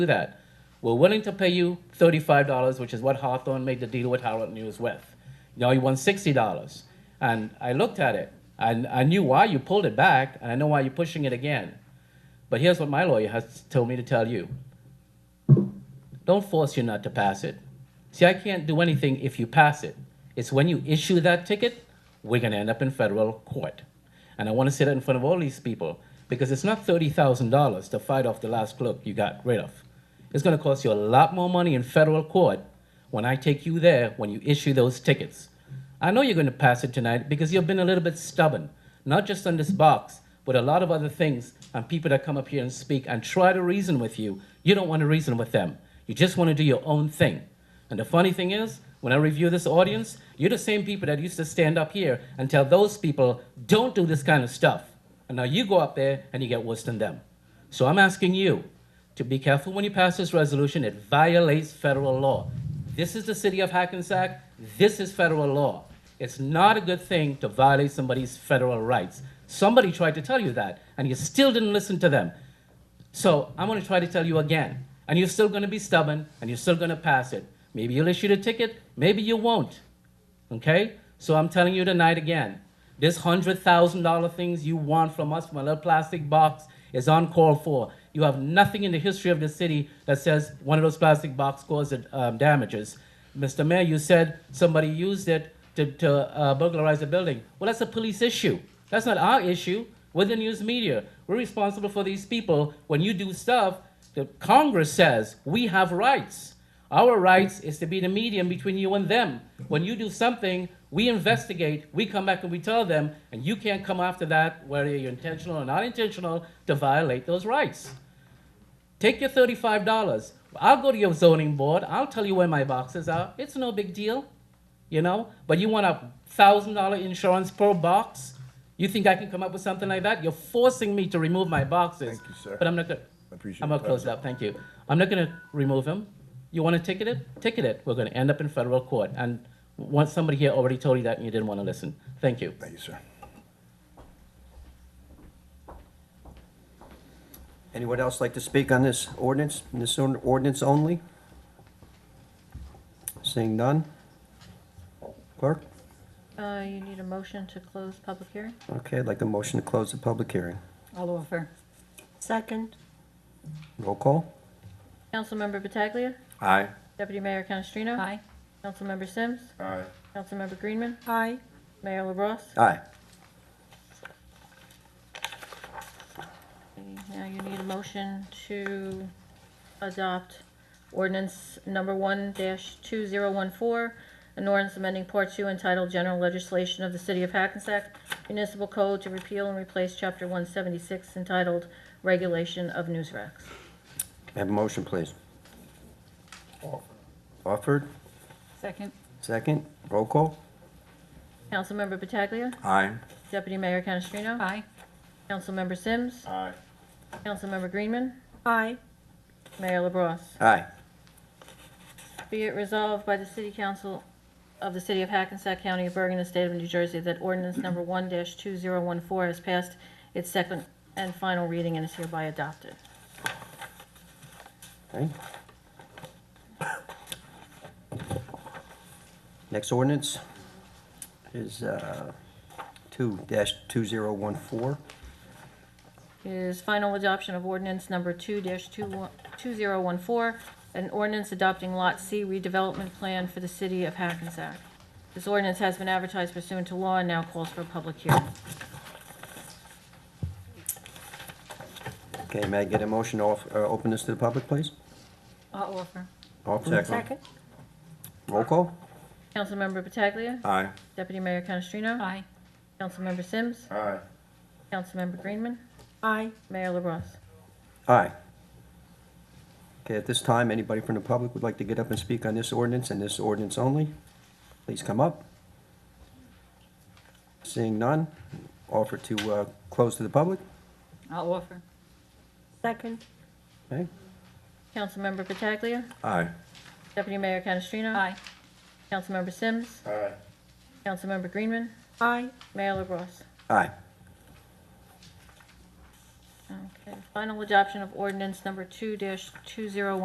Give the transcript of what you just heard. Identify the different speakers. Speaker 1: do that. We're willing to pay you thirty-five dollars, which is what Hawthorne made the deal with Howard News with. Now you want sixty dollars. And I looked at it and I knew why you pulled it back and I know why you're pushing it again. But here's what my lawyer has told me to tell you. Don't force you not to pass it. See, I can't do anything if you pass it. It's when you issue that ticket, we're gonna end up in federal court. And I wanna say that in front of all these people, because it's not thirty thousand dollars to fight off the last clerk you got rid of. It's gonna cost you a lot more money in federal court when I take you there, when you issue those tickets. I know you're gonna pass it tonight because you've been a little bit stubborn, not just on this box, but a lot of other things and people that come up here and speak and try to reason with you. You don't want to reason with them. You just want to do your own thing. And the funny thing is, when I review this audience, you're the same people that used to stand up here and tell those people, don't do this kind of stuff. And now you go up there and you get worse than them. So I'm asking you to be careful when you pass this resolution. It violates federal law. This is the city of Hackensack. This is federal law. It's not a good thing to violate somebody's federal rights. Somebody tried to tell you that, and you still didn't listen to them. So I'm going to try to tell you again. And you're still going to be stubborn and you're still going to pass it. Maybe you'll issue the ticket, maybe you won't. Okay? So I'm telling you tonight again this $100,000 things you want from us from a little plastic box is uncalled for. You have nothing in the history of the city that says one of those plastic box caused um, damages. Mr. Mayor, you said somebody used it to, to uh, burglarize a building. Well, that's a police issue. That's not our issue. We're the news media. We're responsible for these people. When you do stuff, the Congress says we have rights. Our rights is to be the medium between you and them. When you do something, we investigate, we come back and we tell them, and you can't come after that, whether you're intentional or not intentional, to violate those rights. Take your thirty-five dollars. I'll go to your zoning board. I'll tell you where my boxes are. It's no big deal, you know. But you want a thousand dollar insurance per box? You think I can come up with something like that? You're forcing me to remove my boxes.
Speaker 2: Thank you, sir.
Speaker 1: But I'm not gonna.
Speaker 2: I appreciate
Speaker 1: I'm gonna
Speaker 2: that.
Speaker 1: close it up. Thank you. I'm not gonna remove him. You want to ticket it? Ticket it. We're gonna end up in federal court. And once somebody here already told you that, and you didn't want to listen. Thank you.
Speaker 2: Thank you, sir.
Speaker 3: Anyone else like to speak on this ordinance, this on- ordinance only? Seeing none? Clerk?
Speaker 4: Uh, you need a motion to close public hearing?
Speaker 3: Okay, I'd like the motion to close the public hearing.
Speaker 5: I'll offer.
Speaker 6: Second,
Speaker 3: Roll call?
Speaker 4: Councilmember Pataglia.
Speaker 3: Aye.
Speaker 4: Deputy Mayor Canestrino.
Speaker 5: Aye.
Speaker 4: Councilmember Sims.
Speaker 2: Aye.
Speaker 4: Councilmember Greenman.
Speaker 6: aye.
Speaker 4: Mayor LaBrus.
Speaker 3: Aye.
Speaker 4: Now you need a motion to adopt ordinance number one two zero one four, an ordinance amending part two entitled General Legislation of the City of Hackensack Municipal Code to repeal and replace chapter one seventy-six entitled Regulation of News Racks.
Speaker 3: May I Have a motion, please. Offered,
Speaker 5: Second.
Speaker 3: second, roll call?
Speaker 4: Councilmember Pataglia.
Speaker 3: Aye.
Speaker 4: Deputy Mayor Canestrino.
Speaker 5: Aye.
Speaker 4: Councilmember Sims.
Speaker 2: Aye.
Speaker 4: Councilmember Greenman.
Speaker 6: Aye.
Speaker 4: Mayor LaBrus.
Speaker 3: Aye.
Speaker 4: Be it resolved by the City Council of the City of Hackensack County of Bergen, the State of New Jersey, that ordinance number 1-2014 has passed its second and final reading and is hereby adopted.
Speaker 3: Okay. Next ordinance is uh, 2-2014.
Speaker 4: Is final adoption of ordinance number 2-2014, an ordinance adopting Lot C redevelopment plan for the City of Hackensack. This ordinance has been advertised pursuant to law and now calls for a public hearing.
Speaker 3: Okay, may I get a motion to off- uh, open this to the public, please?
Speaker 5: I'll offer.
Speaker 3: Offered,
Speaker 6: Second,
Speaker 3: roll call?
Speaker 4: Councilmember Pataglia.
Speaker 3: Aye.
Speaker 4: Deputy Mayor Canestrino.
Speaker 5: Aye.
Speaker 4: Councilmember Sims.
Speaker 2: Aye.
Speaker 4: Councilmember Greenman.
Speaker 6: aye.
Speaker 4: Mayor LaBrus.
Speaker 3: Aye. Okay, at this time, anybody from the public would like to get up and speak on this ordinance and this ordinance only? Please come up. Seeing none, offer to uh, close to the public.
Speaker 5: I'll offer.
Speaker 6: Second,
Speaker 3: Okay?
Speaker 4: Councilmember Pataglia.
Speaker 3: Aye.
Speaker 4: Deputy Mayor Canestrino.
Speaker 5: Aye.
Speaker 4: Councilmember Sims.
Speaker 2: Aye.
Speaker 4: Councilmember Greenman.
Speaker 6: aye.
Speaker 4: Mayor LaBrus.
Speaker 3: Aye.
Speaker 4: Okay. Final adoption of ordinance number two dash two zero